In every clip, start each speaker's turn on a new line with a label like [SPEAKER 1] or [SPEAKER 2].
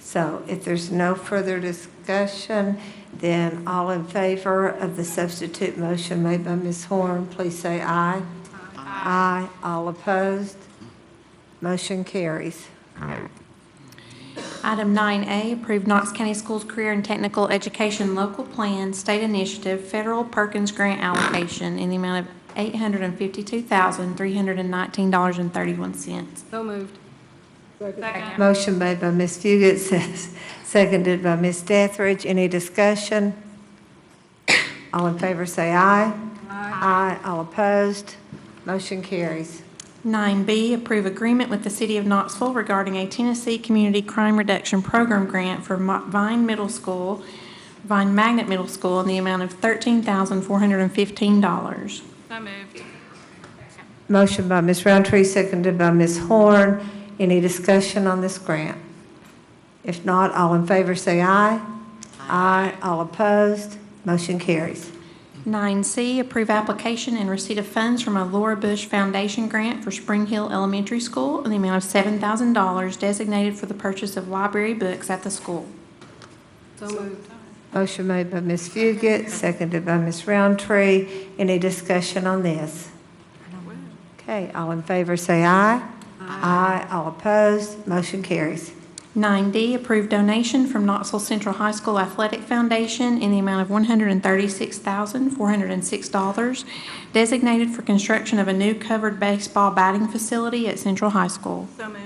[SPEAKER 1] So if there's no further discussion, then all in favor of the substitute motion made by Ms. Horn, please say aye. Aye. All opposed? Motion carries.
[SPEAKER 2] Item 9A, approve Knox County Schools Career and Technical Education Local Plan, State Initiative, Federal Perkins Grant Allocation in the amount of $852,319.31.
[SPEAKER 3] So moved. Second.
[SPEAKER 1] Motion made by Ms. Fugit, says- seconded by Ms. Dethridge. Any discussion? All in favor, say aye. Aye. All opposed? Motion carries.
[SPEAKER 2] 9B, approve agreement with the City of Knoxville regarding a Tennessee Community Crime Reduction Program grant for Mo- Vine Middle School, Vine Magnet Middle School in the amount of $13,415.
[SPEAKER 3] So moved.
[SPEAKER 1] Motion by Ms. Roundtree, seconded by Ms. Horn. Any discussion on this grant? If not, all in favor say aye. Aye. All opposed, motion carries.
[SPEAKER 2] 9C, approve application and receipt of funds from a Laura Bush Foundation grant for Spring Hill Elementary School in the amount of $7,000 designated for the purchase of library books at the school.
[SPEAKER 3] So moved.
[SPEAKER 1] Motion made by Ms. Fugit, seconded by Ms. Roundtree. Any discussion on this? Okay, all in favor say aye. Aye. All opposed, motion carries.
[SPEAKER 2] 9D, approve donation from Knoxville Central High School Athletic Foundation in the amount of $136,406 designated for construction of a new covered baseball batting facility at Central High School.
[SPEAKER 3] So moved.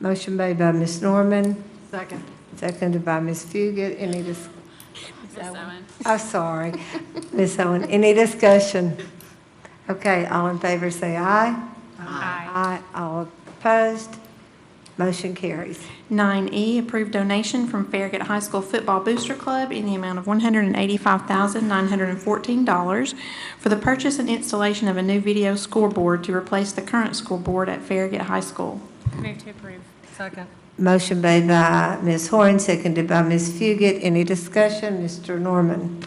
[SPEAKER 1] Motion made by Ms. Norman,
[SPEAKER 3] Second.
[SPEAKER 1] seconded by Ms. Fugit. Any dis-
[SPEAKER 3] Ms. Owen.
[SPEAKER 1] I'm sorry, Ms. Owen. Any discussion? Okay, all in favor say aye. Aye.
[SPEAKER 3] Aye.
[SPEAKER 1] All opposed? Motion carries.
[SPEAKER 2] 9E, approve E, donation from Farragut High School Football Booster Club in the amount of $185,914 for the purchase and installation of a new video scoreboard to replace the current scoreboard at Farragut High School.
[SPEAKER 3] Move to approve. Second.
[SPEAKER 1] Motion made by Ms. Horn, seconded by Ms. Fugit. Any discussion? Mr. Norman?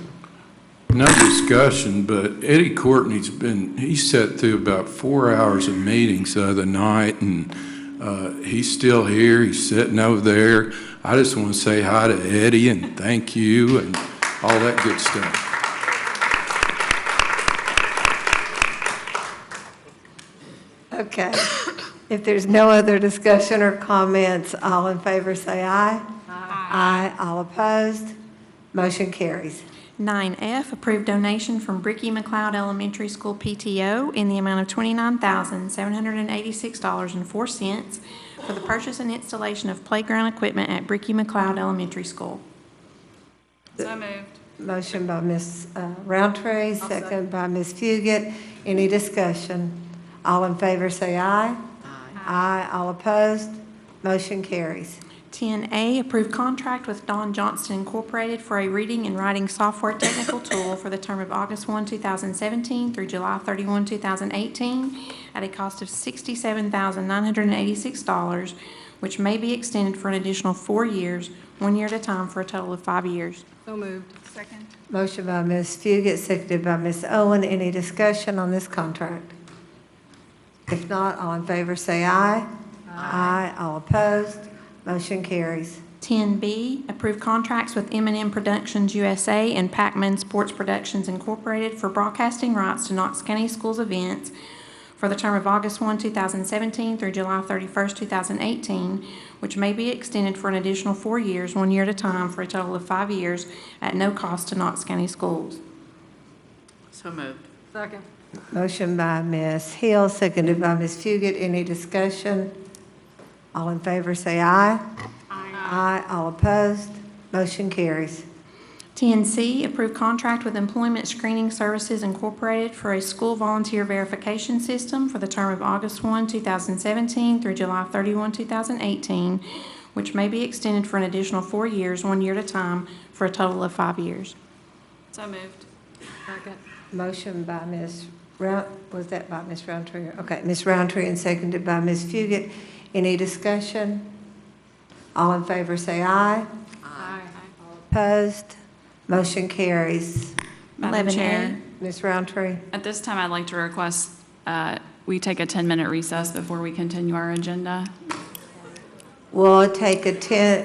[SPEAKER 4] No discussion, but Eddie Courtney's been, he sat through about four hours of meetings the other night, and uh, he's still here, he's sitting over there. I just want to say hi to Eddie and thank you and all that good stuff.
[SPEAKER 1] Okay. If there's no other discussion or comments, all in favor say aye. Aye. All opposed? Motion carries.
[SPEAKER 2] 9F, approve donation from Bricky McLeod Elementary School PTO in the amount of $29,786.04 for the purchase and installation of playground equipment at Bricky McLeod Elementary School.
[SPEAKER 3] So moved.
[SPEAKER 1] Motion by Ms. uh, Roundtree, second by Ms. Fugit. Any discussion? All in favor say aye. Aye. All opposed? Motion carries.
[SPEAKER 2] 10A, approve contract with Don Johnston Incorporated for a reading and writing software technical tool for the term of August 1, 2017 through July 31, 2018, at a cost of $67,986, which may be extended for an additional four years, one year at a time, for a total of five years.
[SPEAKER 3] So moved. Second.
[SPEAKER 1] Motion by Ms. Fugit, seconded by Ms. Owen. Any discussion on this contract? If not, all in favor say aye. Aye. All opposed? Motion carries.
[SPEAKER 2] 10B, approve contracts with m and M Productions USA and Pac-Man Sports Productions Incorporated for broadcasting rights to Knox County Schools events for the term of August 1, 2017 through July 31, 2018, which may be extended for an additional four years, one year at a time, for a total of five years, at no cost to Knox County Schools.
[SPEAKER 5] So moved.
[SPEAKER 3] Second.
[SPEAKER 1] Motion by Ms. Hill, seconded by Ms. Fugit. Any discussion? All in favor, say aye. Aye. All opposed? Motion carries.
[SPEAKER 2] 10C, approve contract with Employment Screening Services Incorporated for a school volunteer verification system for the term of August 1, 2017 through July 31, 2018, which may be extended for an additional four years, one year at a time, for a total of five years.
[SPEAKER 3] So moved. Second.
[SPEAKER 1] Motion by Ms. Round, was that by Ms. Roundtree? Okay, Ms. Roundtree and seconded by Ms. Fugit. Any discussion? All in favor, say aye.
[SPEAKER 3] Aye.
[SPEAKER 1] Opposed? Motion carries.
[SPEAKER 6] Madam
[SPEAKER 2] 11A.
[SPEAKER 6] Chair,
[SPEAKER 1] Ms. Roundtree?
[SPEAKER 6] at this time, I'd like to request uh, we take a 10-minute recess before we continue our agenda.
[SPEAKER 1] We'll take a 10,